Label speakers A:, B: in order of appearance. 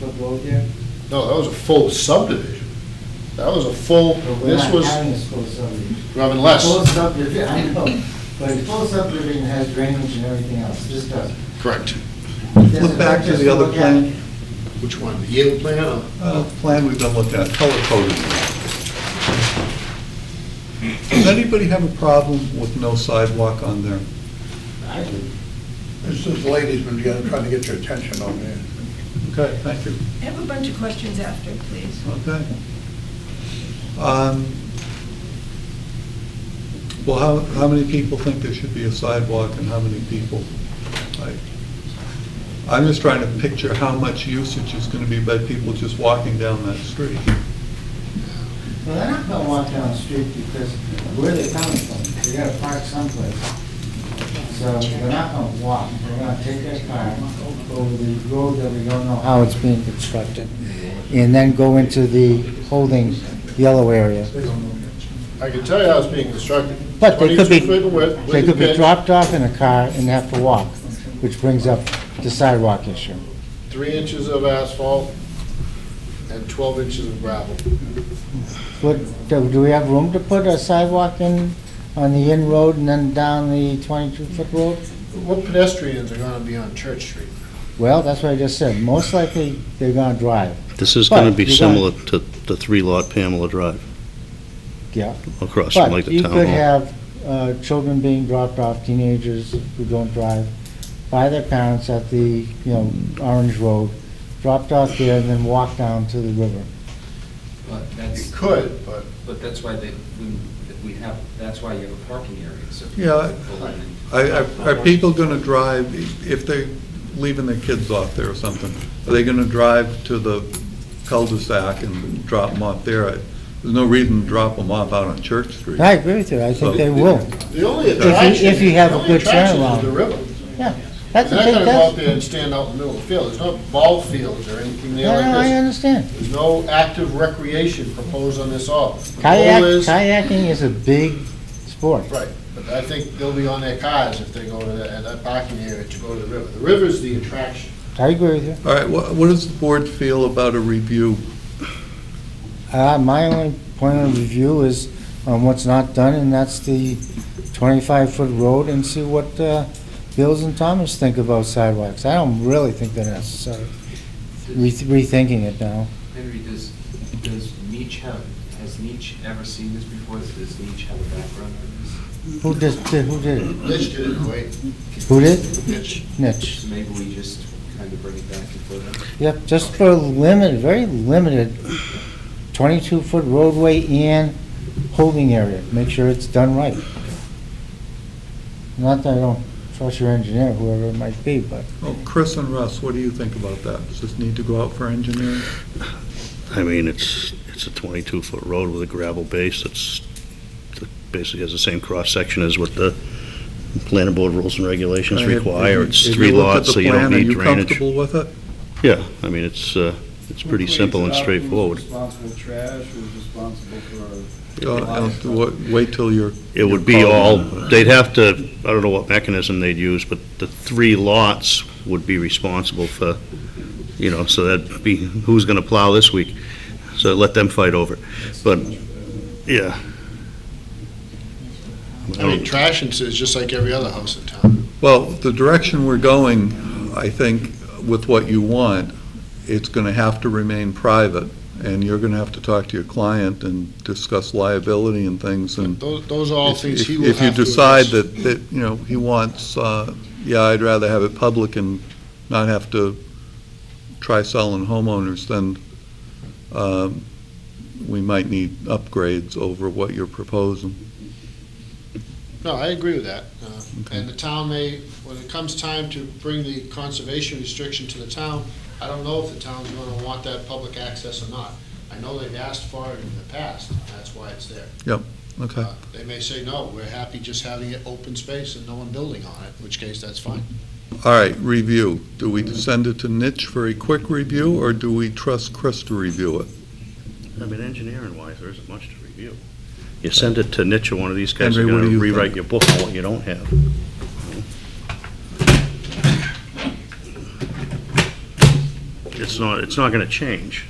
A: the road there?
B: No, that was a full subdivision. That was a full,
A: But we're
B: this
A: not
B: was,
A: having a full subdivision.
B: well, unless,
A: Full subdivision, I know, but a full subdivision has drainage and everything else, this doesn't.
B: correct.
A: This is
C: Flip back to
A: just
C: the other
A: look at-
C: plan,
B: Which one, the yield plan or?
C: uh, plan we've been looking at, color coded. Does anybody have a problem with no sidewalk on there?
B: I did.
D: This is ladies, when you're trying to get your attention over here.
C: Okay, thank you.
E: I have a bunch of questions after, please.
C: Okay. Um, Well, how, how many people think there should be a sidewalk and how many people? I- I'm just trying to picture how much usage is going to be by people just walking down that street.
A: Well, they're not gonna walk down the street because where they're coming from, they gotta park someplace. So they're not gonna walk, they're gonna take their car over the road that we don't know how it's being constructed, and then go into the holding yellow area.
B: I can tell you how it's being constructed.
A: But they could be,
B: 22 feet of width,
A: they
B: with
A: could
B: the
A: be
B: pit,
A: dropped off in a car and have to walk, which brings up the sidewalk issue.
B: three inches of asphalt and 12 inches of gravel.
A: What, do do we have room to put a sidewalk in, on the in road and then down the 22-foot road?
B: What pedestrians are going to be on Church Street?
A: Well, that's what I just said, most likely they're gonna drive,
F: This is going
A: But
F: to be
A: you're
F: similar to the three-lot Pamela Drive
A: yeah.
F: across from like
A: But
F: the
A: you
F: town
A: could
F: hall.
A: have uh, children being dropped off, teenagers who don't drive, by their parents at the, you know, Orange Road, dropped off there and then walk down to the river.
G: But
B: You
G: that's,
B: could, but
G: but that's why they, we- that we have, that's why you have a parking area, so. people
C: Yeah,
G: can pull in
C: I-
G: and-
C: I- Are people going to drive, if they're leaving their kids off there or something, are they going to drive to the cul-de-sac and drop them off there? I- There's no reason to drop them off out on Church Street.
A: I agree with you, I think they will.
B: the only
C: If you-
B: attraction,
A: if you have
B: the
A: a
B: only
A: good
B: attraction
A: turnaround.
B: is the river.
A: Yeah, that's a
B: They're not
A: big,
B: going to go out
A: that's,
B: there and stand out in the middle of the field. There's no ball fields or anything there
A: no, no,
B: like
A: I
B: this.
A: understand.
B: There's no active recreation proposed on this all. The
A: Kayak,
B: goal is-
A: kayaking is a big sport.
B: Right, but I think they'll be on their cars if they go to that, at that parking area to go to the river. The river's the attraction.
A: I agree with you.
C: All right, wha- what does the board feel about a review?
A: Uh, my only point of review is on what's not done, and that's the twenty-five foot road, and see what, uh, Bills and Thomas think about sidewalks. I don't really think they're necessary, Re- rethinking it now.
G: Henry, does, does Nietzsche have, has Nietzsche ever seen this before? Does Nietzsche have a background in this?
A: Who did, did- who did it?
B: Mitch did it, wait.
A: Who did?
B: Mitch.
A: Nitch.
G: So maybe we just kind of bring it back and forth.
A: Yep, just for limited, very limited, 22-foot roadway and holding area. Make sure it's done right. Not that I don't trust your engineer, whoever it might be, but
C: Oh, Chris and Russ, what do you think about that? Does this need to go out for engineering?
F: I mean, it's, it's a 22-foot road with a gravel base that's, that basically has the same cross-section as what the planning board rules and regulations
C: I have-
F: require. It's
C: if you
F: three
C: look at
F: lots,
C: the
F: so you don't
C: plan, are
F: need drainage.
C: comfortable with it?
F: Yeah, I mean, it's, uh, it's pretty simple and straightforward.
H: responsible for trash, who's responsible for?
C: Uh, I'll do what- Wait till you're, uh,
F: It would be all, they'd have to, I don't know what mechanism they'd use, but the three lots would be responsible for, you know, so that'd be, who's gonna plow this week? So let them fight over it. But, yeah.
B: I mean, trash and is just like every other house in town.
C: well, the direction we're going, I think, with what you want, it's going to have to remain private, and you're going to have to talk to your client and discuss liability and things, and
B: Those, those are all
C: If-
B: things
C: if-
B: he will have to.
C: If you decide
B: address.
C: that, that, you know, he wants, uh, yeah, I'd rather have it public and not have to try selling homeowners, then um, we might need upgrades over what you're proposing.
B: No, I agree with that. Uh, And the town may, when it comes time to bring the conservation restriction to the town, I don't know if the town's gonna want that public access or not. I know they've asked for it in the past, and that's why it's there.
C: Okay.
B: Uh, They may say, no, we're happy just having it open space and no one building on it, in which case, that's fine.
C: All right, review. Do we send it to Nitch for a quick review, or do we trust Chris to review it?
F: I mean, engineering-wise, there isn't much to review. You send it to Nitch or one of these guys,
C: Henry,
F: they're
C: what do
F: gonna
C: you think?
F: rewrite your book on what you don't have. it's not, it's not gonna change.